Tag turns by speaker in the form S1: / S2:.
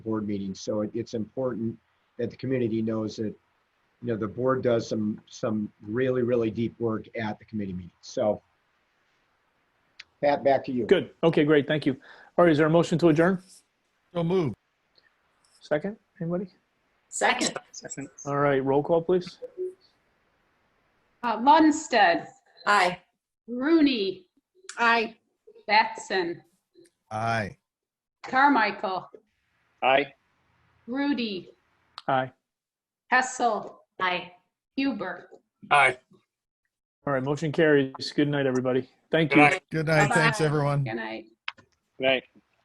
S1: board meetings. So it- it's important that the community knows that, you know, the board does some, some really, really deep work at the committee meetings. So Pat, back to you.
S2: Good. Okay, great. Thank you. All right, is there a motion to adjourn?
S3: So moved.
S2: Second, anybody?
S4: Second.
S2: All right, roll call, please.
S5: Uh, Lundsted,
S4: Aye.
S5: Rooney. Aye. Batson,
S3: Aye.
S5: Carmichael,
S6: Aye.
S5: Rudy,
S2: Aye.
S5: Hessel,
S4: Aye.
S5: Huber.
S6: Aye.
S2: All right, motion carries. Good night, everybody. Thank
S6: Good
S2: you.
S6: night.
S3: Good night. Thanks,
S5: Bye-bye.
S3: everyone.
S5: Good night.
S6: Good night.